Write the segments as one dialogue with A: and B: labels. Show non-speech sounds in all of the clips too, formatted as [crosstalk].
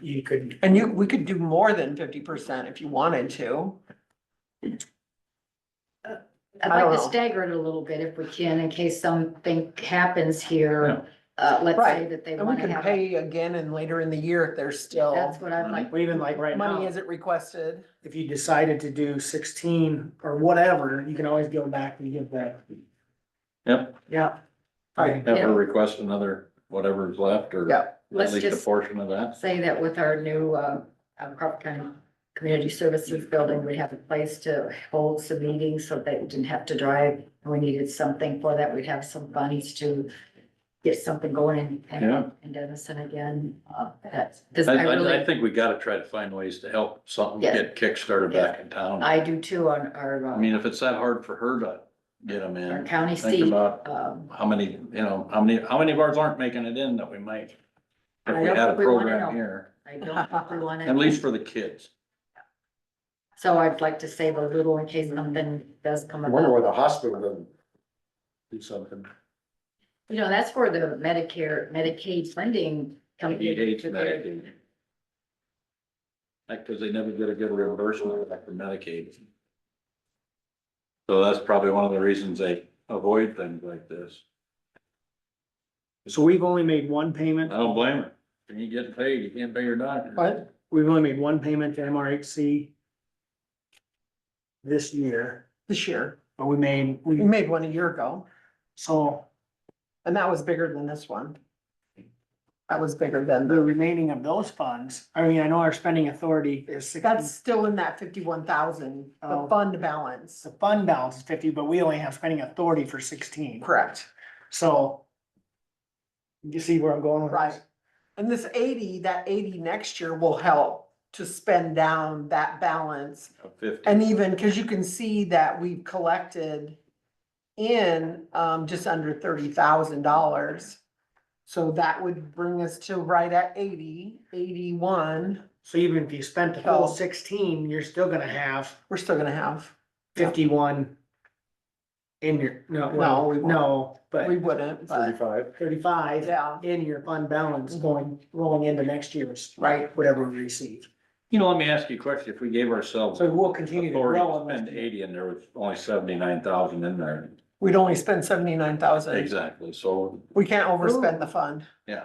A: you could,
B: And you, we could do more than fifty percent if you wanted to.
C: I'd
B: I don't
C: like to
B: know.
C: stagger it a little bit if we can, in case something happens here. Uh, let's say
B: Right.
C: that they
B: And we
C: wanna
B: can
C: have, a-
B: pay again and later in the year if there's still
C: that's what I'd like,
A: or even like right
B: money
A: now,
B: isn't requested.
A: if you decided to do sixteen or whatever, you can always go back and give that.
D: Yep.
A: Yeah.
B: Right.
D: Have her request another, whatever's left, or
B: Yeah.
D: at
C: Let's
D: least a
C: just-
D: portion of that.
C: say that with our new, uh, uh, Crawford County Community Services Building, we have a place to hold some meetings so they didn't have to drive. We needed something for that, we'd have some bunnies to get something going in-
D: Yeah.
C: in, in Denison again, uh, that's, this,
D: I,
C: I
D: I, I
C: really,
D: think we gotta try to find ways to help something
C: Yeah.
D: get kickstarted back in town.
C: I do too on our,
D: I
C: uh,
D: mean, if it's that hard for her to get them
C: our
D: in,
C: county
D: think
C: seat.
D: about
C: Um,
D: how many, you know, how many, how many of ours aren't making it in that we might. If
C: I
D: we
C: don't
D: had a
C: think we wanna
D: program
C: know.
D: here,
C: I don't think we want to.
D: at least for the kids.
C: So I'd like to save a little in case something does come
E: I wonder
C: about.
E: why the hospital doesn't do something.
C: You know, that's where the Medicare, Medicaid funding comes
D: He hates
C: into their
D: Medicaid. Like, cause they never get a good reimbursement back from Medicaid. So that's probably one of the reasons they avoid things like this.
A: So we've only made one
D: I
A: payment,
D: don't blame her. When you get paid, you can't pay your doctor.
B: But
A: we've only made one payment to MRHC this year,
B: this year,
A: but we made,
B: we
A: we,
B: made one a year ago,
A: so
B: and that was bigger than this one. That was bigger than,
A: the
B: the-
A: remaining of those funds, I mean, I know our spending authority is sixty.
B: that's still in that fifty-one thousand, the
A: Oh.
B: fund balance.
A: The fund balance is fifty, but we only have spending authority for sixteen,
B: Correct.
A: so. You see where I'm going with
B: Right.
A: this?
B: And this eighty, that eighty next year will help to spend down that balance
D: Of Fifty.
B: And even, cause you can see that we've collected in, um, just under thirty thousand dollars. So that would bring us to right at eighty, eighty-one,
A: So even if you spent the full
B: So-
A: sixteen, you're still gonna have
B: we're still gonna have,
A: fifty-one. In your, no,
B: No,
A: well,
B: we won't.
A: no,
B: we
A: but
B: wouldn't, but,
E: Thirty-five.
A: thirty-five
B: yeah, Mm-hmm.
A: in your fund balance going, rolling into next year's,
B: right.
A: whatever we receive.
D: You know, let me ask you a question. If we gave ourselves
A: So we'll continue to
D: authority
A: grow.
D: to
A: unless-
D: spend eighty and there was only seventy-nine thousand in there.
B: We'd only spend seventy-nine thousand.
D: Exactly. So,
B: We can't overspend the fund.
D: yeah.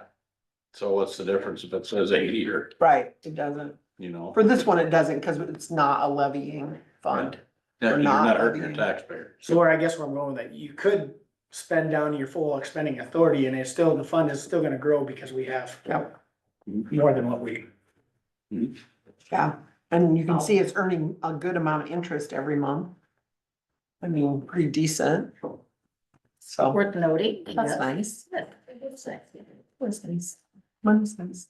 D: So what's the difference if it says eighty or,
B: Right, it doesn't.
D: you know?
B: For this one, it doesn't, cause it's not a levying fund.
D: Yeah,
B: we're
D: you're
B: not
D: not hurting your
B: levying.
D: taxpayer.
A: So where I guess where I'm going with that, you could spend down your full spending authority and it's still, the fund is still gonna grow because we have.
B: Yep.
A: More than what we.
B: Yeah, and you can see it's earning a good amount of interest every month. I mean, pretty decent. So
C: Worth noting.
B: that's nice.
C: Yes. That's nice.
B: That's nice. Money's [laughs] nice.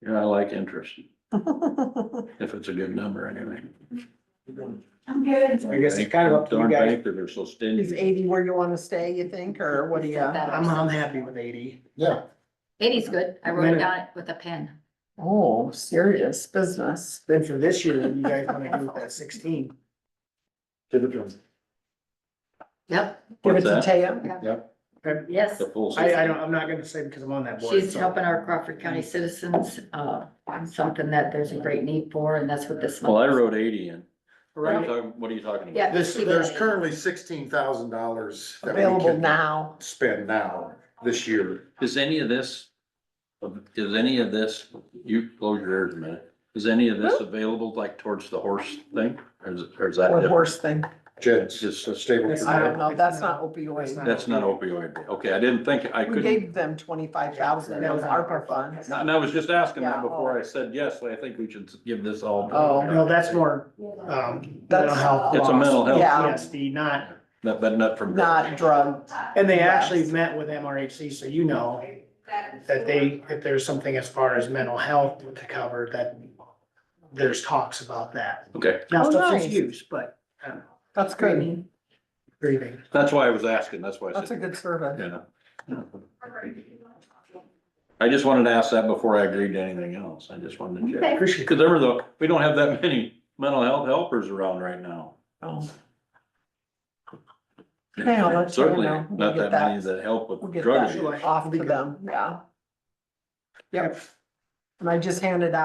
D: Yeah, I like interest,
B: Well,
D: if it's a good number anyway.
C: I'm good.
A: I guess it's kind of up to you
D: Darn
A: guys.
D: bankers are so
B: Is
D: stingy.
B: eighty where you wanna stay, you think, or what do you?
A: I'm, I'm happy with eighty.
E: Yeah,
C: Katie's good. I wrote it down with a pen.
B: Oh, serious business.
A: Then for this year, you guys wanna do that sixteen.
E: give it to them.
C: Yep.
B: Give it
D: What's
B: to
D: that?
B: Taya.
C: Yes.
D: The full.
A: I, I don't, I'm not gonna say because I'm on that board.
C: She's
A: so-
C: helping our Crawford County citizens, uh, on something that there's a great need for, and that's what this.
D: Well, I
C: month is.
D: wrote eighty in. What are you
A: Right,
D: talking- what are you talking about?
C: Yeah.
E: This,
C: she
E: there's
C: did.
E: currently sixteen thousand dollars that we
B: Available
E: can
B: now.
E: spend now, this year.
D: Is any of this, is any of this, you close your ears a minute, is any of this available like towards the horse thing? Or is, or is that?
B: What
D: different?
B: horse thing?
E: Jed's
D: Just-
E: just a stable.
A: Yes,
B: I
A: I-
B: don't know. That's not opioid.
D: That's not opioid. Okay, I didn't think, I
B: We
D: couldn't,
B: gave them twenty-five thousand. That was ARPA funds.
D: and I was just asking
B: Yeah,
D: that
B: oh.
D: before I said yes, I think we should give this all.
B: Oh.
A: no, that's more,
E: uh,
A: um, mental health.
D: It's a
A: laws.
D: mental health.
B: Yeah.
A: PTSD, not,
D: Not- But not from.
B: Not drug.
A: and they actually met with MRHC, so you know that they, if there's something as far as mental health to cover, that there's talks about that.
D: Okay,
A: Now,
B: Oh,
A: substance
B: nice.
A: use, but, um,
B: That's good.
A: grieving.
D: that's why I was asking, that's why I said.
B: That's a good survey.
D: Yeah. I just wanted to ask that before I agreed to anything else. I just wanted to check.
A: Appreciate
D: Because there were the, we don't have that [laughs] many mental health helpers around right now.
B: Oh. Yeah, that's fair
D: Certainly,
B: enough. We'll
D: not
B: get
D: that many
B: that.
D: that help
B: We'll
D: with
B: get
D: drug
B: that
D: abuse.
B: off to them, yeah. Yep, And I just handed out.